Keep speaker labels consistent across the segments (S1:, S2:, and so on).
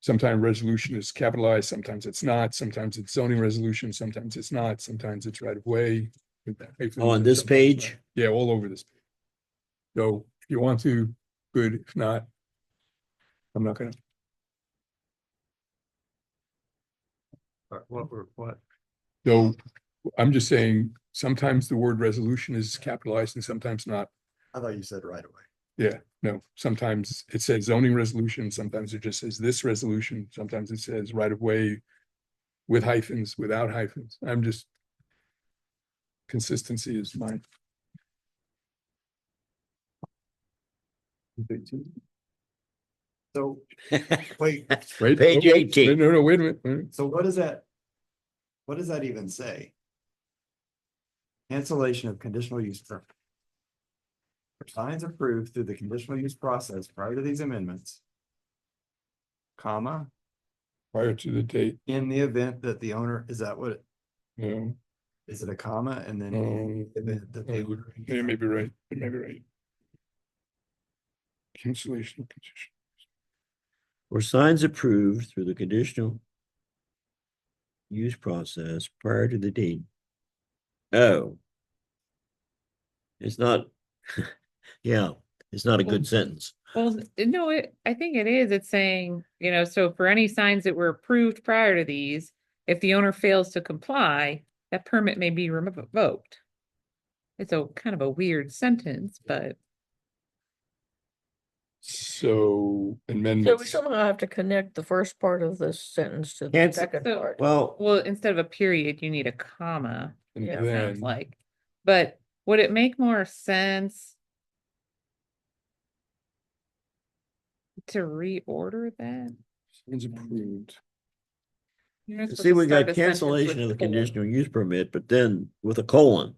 S1: Sometimes resolution is capitalized, sometimes it's not, sometimes it's zoning resolution, sometimes it's not, sometimes it's right of way.
S2: On this page?
S1: Yeah, all over this. So if you want to, good, if not, I'm not gonna,
S3: Or What were, what?
S1: though, I'm just saying, sometimes the word resolution is capitalized and sometimes not.
S3: I thought you said right away.
S1: Yeah, no, sometimes it says zoning resolution, sometimes it just says this resolution, sometimes it says right of way. With hyphens, without hyphens, I'm just. Consistency is mine.
S3: So, wait,
S1: Right?
S2: Page
S1: Oh, wait,
S2: 18.
S1: No, no, wait a minute, wait a minute.
S3: so what does that? What does that even say? Cancellation of conditional use permit. For Signs approved through the conditional use process prior to these amendments. Comma,
S1: prior to the date,
S3: in the event that the owner, is that what, it-
S1: no,
S3: is it a comma and then? in the
S1: Um,
S3: event that
S1: I
S3: the
S1: would-
S3: owner-
S1: yeah, maybe right, it may be right. Cancellation of condition.
S2: Were signs approved through the conditional use process prior to the date? Oh. It's not, yeah, it's not a
S4: Um,
S2: good sentence.
S4: Well, th- no, it, I think it is. It's saying, you know, so for any signs that were approved prior to these, if the owner fails to comply, that permit may be remo- revoked. It's a kind of a weird sentence, but
S1: So
S5: So we
S1: amendments,
S5: somehow have to connect the first part of this sentence to the
S2: Can't-
S5: second
S4: So-
S5: part.
S2: Well,
S4: well, instead of a period, you need a comma,
S1: and
S5: yeah,
S4: it sounds
S1: then,
S4: like. But would it make more sense? To reorder that?
S1: it's approved.
S4: You're not supposed
S2: see,
S4: to
S2: we
S4: start
S2: got
S4: a sentence
S2: cancellation of
S4: with
S2: the
S4: or.
S2: conditional use permit, but then with a colon.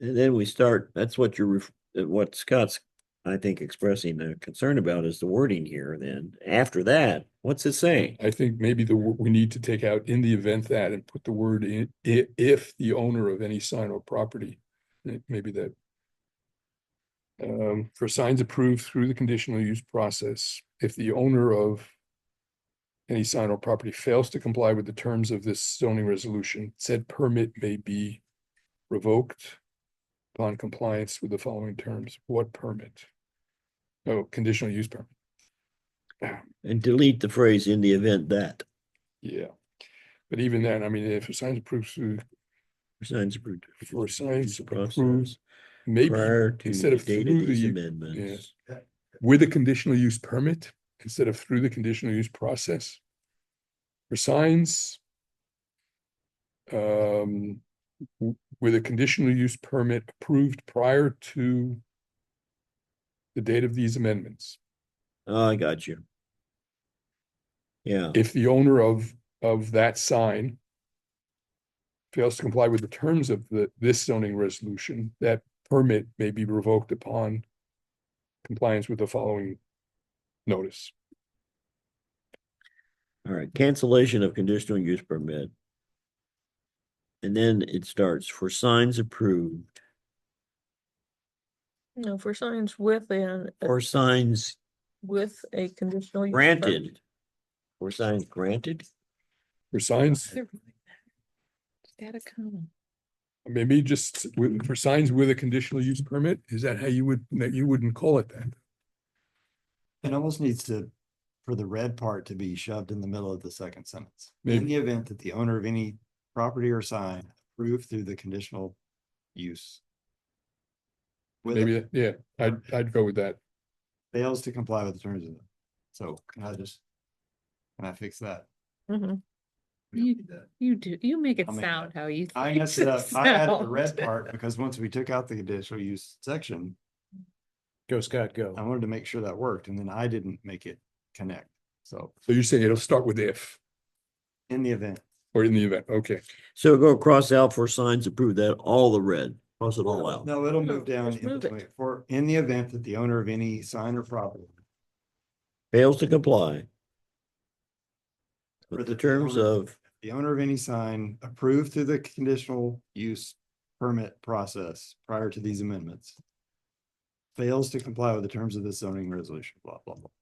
S2: And then we start, that's what you're, ref- uh, what Scott's, I think, expressing a concern about is the wording here then. After that, what's it saying?
S1: I think maybe the, wo- we need to take out in the event that and put the word in, i- if the owner of any sign or property, eh, maybe that. Um, for signs approved through the conditional use process, if the owner of. Any sign or property fails to comply with the terms of this zoning resolution, said permit may be revoked. Upon compliance with the following terms, what permit? Oh, conditional use permit.
S2: And delete the phrase in the event that.
S1: Yeah, but even then, I mean, if a sign's approved through,
S2: Signs approved.
S1: for signs approved,
S2: Process
S1: maybe
S2: prior to
S1: instead
S2: the
S1: of
S2: date
S1: through
S2: of these
S1: the-
S2: amendments.
S1: with a conditional use permit instead of through the conditional use process. For signs um, w- with a conditional use permit approved prior to the date of these amendments,
S2: Oh, I got you. Yeah,
S1: if the owner of, of that sign fails to comply with the terms of the, this zoning resolution, that permit may be revoked upon compliance with the following notice.
S2: all right, cancellation of conditional use permit. And then it starts for signs approved
S5: No, for signs within,
S2: or signs
S5: with a conditional. use permit.
S2: granted. Or signs granted?
S1: For signs,
S4: They're really bad. Just add a comma.
S1: maybe just with, for signs with a conditional use permit, is that how you would, that you wouldn't call it that?
S3: It almost needs to, for the red part to be shoved in the middle of the second sentence.
S1: Maybe.
S3: In the event that the owner of any property or sign approved through the conditional use. With
S1: Maybe,
S3: it
S1: yeah, I'd, I'd go with that.
S3: fails to comply with the terms of it. So can I just? Can I fix that?
S5: Mhm.
S3: We don't
S4: You-
S3: need that.
S4: You do, you make it
S3: I'll make it
S4: sound how you.
S3: I
S4: think
S3: messed
S4: it
S3: it up. I added the red
S4: sounds.
S3: part because once we took out the conditional use section,
S6: Go Scott,
S3: I
S6: go.
S3: wanted to make sure that worked and then I didn't make it connect. So
S1: So you're saying it'll start with if,
S3: in the event,
S1: or in the event, okay.
S2: So go cross out for signs approved, that all the red, cross it all out.
S3: No, it'll
S5: No,
S3: move down
S5: just
S3: in
S5: move it.
S3: between, for, in the event that the owner of any sign or property.
S2: Fails to comply.
S3: For
S2: With
S3: the
S2: the terms
S3: owner-
S2: of
S3: The owner of any sign approved through the conditional use permit process prior to these amendments. Fails to comply with the terms of this zoning resolution, blah, blah, blah.